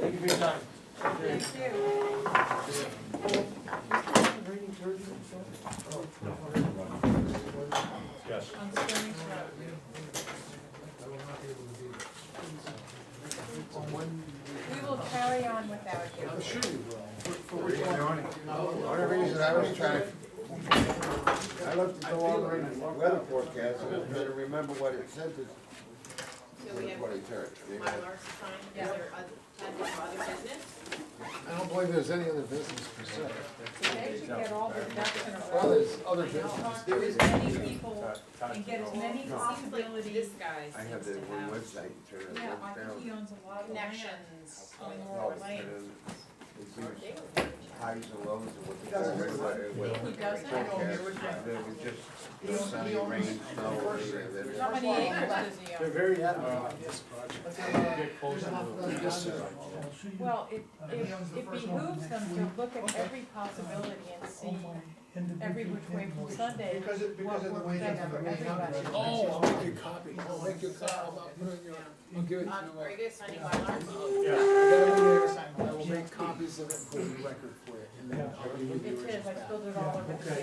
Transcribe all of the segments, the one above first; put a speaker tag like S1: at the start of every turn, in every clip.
S1: Thank you for your time.
S2: Thank you.
S1: Yes.
S2: On Stony Brook. We will carry on without you.
S3: One of the reasons I was trying to, I looked at the long-range weather forecast, and I was trying to remember what it said this,
S4: So we have
S3: what it turned.
S4: Mylar to sign, is
S2: Yeah.
S4: there other, other business?
S5: I don't believe there's any other business per se.
S2: They should get all the ducks in a
S5: Well,
S2: row.
S5: there's other business.
S2: Talk to as many people and get as many
S4: Seems like this
S2: possibilities.
S4: guy
S3: I have
S4: seems
S3: that
S4: to
S3: one
S4: have
S3: website, you turn it
S2: Yeah, I think he
S3: down.
S2: owns a lot of land.
S4: connections.
S2: on
S4: with
S2: Laurel
S3: And
S2: Lane.
S3: then it gives
S4: They were-
S3: highs and lows and what the weather, what
S2: He
S3: the
S2: doesn't?
S3: forecast, there was just the sunny rain, snow, and then.
S2: How many acres does he own?
S5: very adamant on this project.
S1: Get closer to the-
S2: Well, it,
S6: Uh,
S2: it it behooves them to look at every possibility
S6: Oh
S2: and see every which way from Sunday
S7: Because it, because of the way that the main
S2: Everybody.
S7: Oh, I'll make you copy.
S5: I'll make you a copy. I'll put it in your, I'll give it to you.
S4: Um, are you guys signing Mylars?
S5: I
S1: Yeah,
S5: got it in there, and I will make copies of it and put it in record for you. And then I'll give you
S2: It
S5: the
S2: is, I
S5: original.
S2: spilled it all over the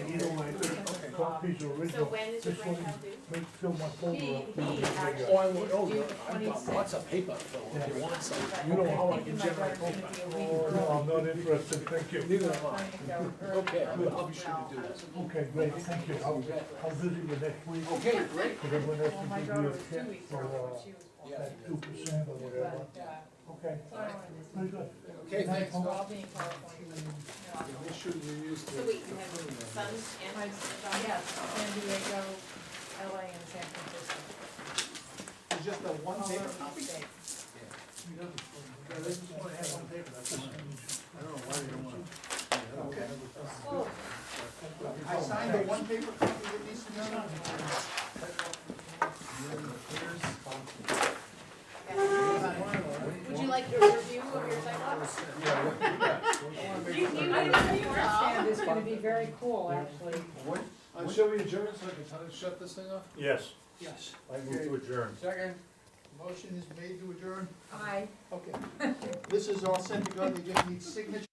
S2: table.
S6: Copies are
S4: So
S6: original,
S4: when is your
S6: Just one.
S4: grandchild due?
S6: make, fill my
S2: He,
S6: folder up.
S2: he actually
S7: Oh, I
S2: is
S7: will, oh,
S2: due
S7: yeah,
S2: the
S7: I've got lots
S2: twenty-sixth,
S7: of paper, Phil, if you want some.
S2: but
S6: You know how Oh, I
S2: I'm
S6: can
S2: thinking my brother's
S6: generate
S2: gonna be a week early.
S6: No, I'm not interested, thank you.
S5: Neither am
S2: I'm
S5: I.
S2: trying to go early.
S7: Okay, I'll I'll be sure to do this.
S6: Okay, great, thank you. I'll, I'll visit you next week.
S7: Okay, great.
S6: Because I'm gonna
S2: Well, my
S6: have to
S2: daughter
S6: give you
S2: was
S6: a
S2: two
S6: check
S2: weeks
S6: for,
S2: early when
S6: uh,
S2: she was born.
S7: Yeah.
S6: that two percent
S2: But,
S6: or whatever.
S2: uh, so I
S6: Okay,
S2: wanted to-
S6: very good.
S7: Okay, thanks.
S2: I'll
S7: Phil.
S2: be in California.
S5: Make sure you use
S4: So
S5: the.
S4: wait, you have sons
S2: Yeah.
S4: and
S2: My,
S4: daughters?
S2: yes, San Diego, LA and San Francisco.
S7: It's just the one
S2: All over
S7: paper
S2: the
S7: copy.
S2: state.
S7: Yeah, they just wanna have one paper, that's all.
S5: I don't know why they don't want to.
S7: Okay.
S2: Oh,
S7: I signed the one paper copy that needs to be signed.
S4: Would you like your review of your sidewalks? You, you, I didn't see your
S2: Stand
S4: job.
S2: is gonna be very cool, actually.
S3: And show me adjourned so I can shut this thing off?
S1: yes,
S7: Yes.
S1: I move to adjourn.
S7: Second. Motion is made to adjourn.
S2: I
S7: Okay. This is all set to go, they just need signatures.